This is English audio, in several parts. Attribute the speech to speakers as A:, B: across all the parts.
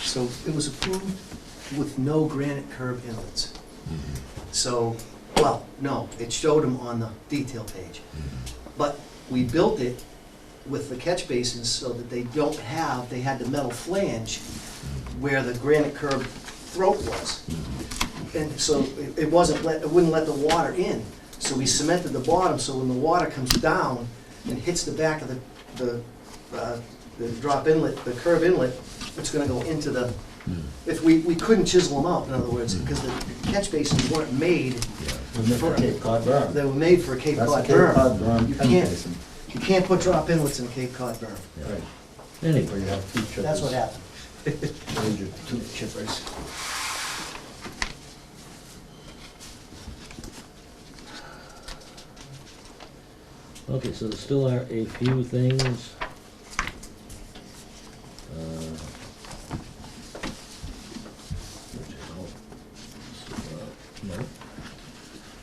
A: So it was approved with no granite curb inlets. So, well, no, it showed them on the detail page. But we built it with the catch basins so that they don't have, they had the metal flange where the granite curb throat was. And so it- it wasn't let, it wouldn't let the water in. So we cemented the bottom, so when the water comes down and hits the back of the, the, uh, the drop inlet, the curb inlet, it's gonna go into the,
B: Hmm.
A: if we, we couldn't chisel them out, in other words, because the catch basins weren't made,
B: Remember Cape Cod berm.
A: they were made for a Cape
B: That's a
A: Cod
B: Cape Cod
A: berm.
B: berm
A: You
B: catch
A: can't-
B: basin.
A: You can't put drop inlets in Cape Cod berm.
B: Right. Anyway, you have two chippers.
A: That's what happened.
B: Major two chippers.
C: Okay, so there still are a few things. uh, which help. So, uh, no.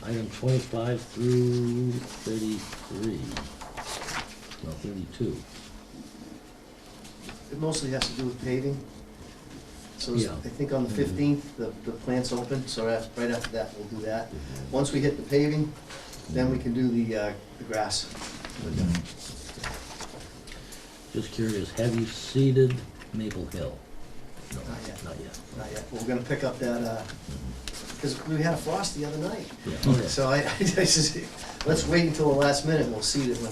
C: Item twenty-five through thirty-three, no, thirty-two.
A: It mostly has to do with paving. So
C: Yeah.
A: I think on the fifteenth, the, the plant's open, so that's- right after that, we'll do that. Once we hit the paving, then we can do the, uh, the grass. uh,
C: Just curious, have you seeded Maple Hill?
A: Not yet,
C: Not yet.
A: not yet. We're gonna pick up that, uh, because we had a frost the other night.
C: Yeah, okay.
A: So I, I just, let's wait until the last minute, and we'll see it when.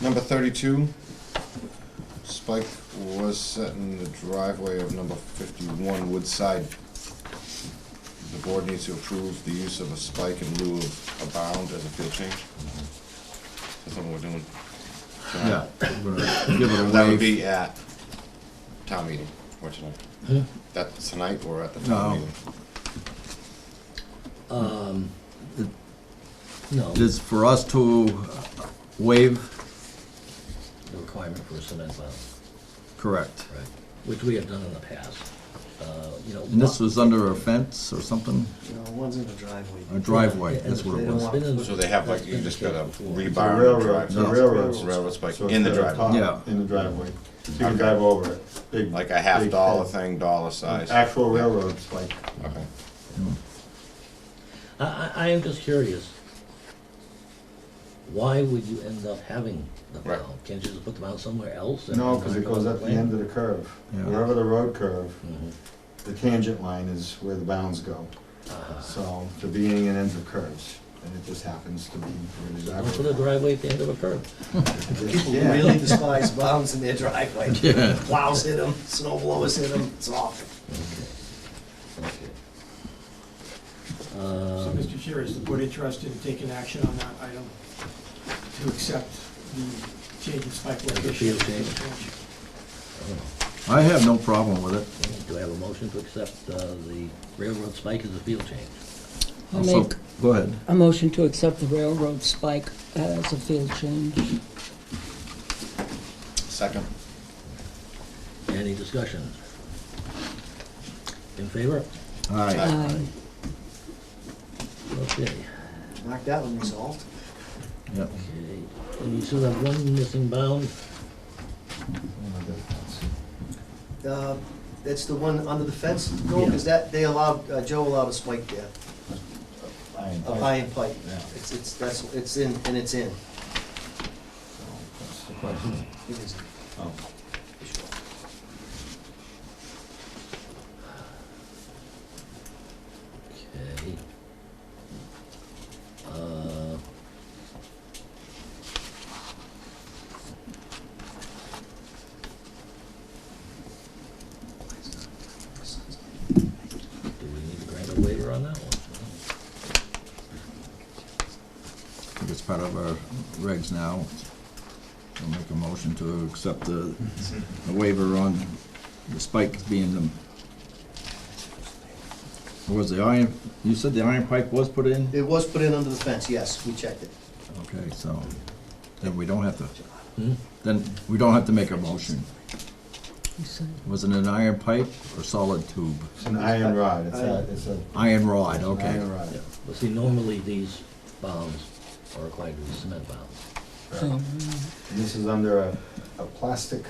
D: Number thirty-two, Spike was set in the driveway of number fifty-one Woodside. The board needs to approve the use of a spike in lieu of a bound as a field change. That's what we're doing.
E: Yeah, we're gonna give it a
D: That would
E: wave.
D: be at town meeting, or tonight.
C: Huh?
D: That's tonight or at the town
E: No.
D: meeting.
C: Um,
E: It-
C: no, the
E: Just for us to waive,
C: requirement for a cement plant.
E: correct.
C: Right. Which we have done in the past. Uh, You know.
E: And this was under a fence or something,
A: You know, one's in the driveway.
E: a driveway, that's what it was.
C: It's been in-
D: So they have like, you
C: that's
D: just
C: been
D: gotta
C: before.
D: rebar the
B: railroad-
D: driveway.
B: the railroad-
D: Railroad spike
B: So
D: in the
B: it's at
D: driveway,
B: top,
E: Yeah.
B: In the driveway. You
D: Okay.
B: can drive over it. Big-
D: like a half
B: big
D: dollar
B: fence.
D: thing, dollar size.
B: Actual railroad spike.
D: Okay.
C: I, I, I am just curious. Why would you end up having the
D: Right.
C: mound? Can't you just put the mound somewhere else? and
B: No, because
C: mark
B: it goes
C: on
B: at the end of the curve.
E: Yeah.
B: Wherever the road curve,
C: plan?
B: the tangent line is where the bounds go.
C: Mhm. Ah.
B: So the beginning and ends of curves, and it just happens to be where the
C: Don't put a
B: driveway.
C: driveway at the end of a curb.
A: People
B: Yeah.
A: really despise bounds in their driveway.
E: Yeah.
A: Plows hit them, snow blowers hit them, it's awful.
C: Okay.
F: So,
C: Um,
F: Mr. Chair, is the board interested in taking action on that item to accept the change in spike
C: the
F: location?
C: field change?
E: I have no problem with it.
C: Do I have a motion to accept uh, the railroad spike as a field change?
G: I'll
E: Also-
G: make
E: Go ahead.
G: a motion to accept the railroad spike as a field change.
D: Second.
C: Any discussion? In favor?
E: All right,
G: Aye.
C: Okay.
A: Knocked that one resolved.
E: yeah.
C: Okay. And you still have one missing bound?
A: Uh, That's the one under the fence, no,
C: Yeah.
A: because that, they allowed, uh, Joe allowed a spike there,
B: Iron
A: a
B: pipe.
A: high end pipe.
B: Yeah.
A: It's, it's, that's, it's in, and it's in.
B: So That's the question.
A: It is.
B: Oh.
C: Okay. Uh, Do we need to grant a waiver on that one?
E: I think it's part of our regs now. I'll make a motion to accept the the waiver on the spike being the. Was the iron, you said the iron pipe was put in?
A: It was put in under the fence, yes, we checked it.
E: Okay, so then we don't have to,
C: Hmm?
E: then we don't have to make a motion.
G: You said-
E: Was it an iron pipe or solid tube?
B: It's an iron rod, it's a, it's a.
E: Iron rod,
B: it's an
E: okay.
B: Iron rod.
C: Well, see, normally these bounds are required to be cement bounds.
B: Right.
G: Um,
B: And This is under a, a plastic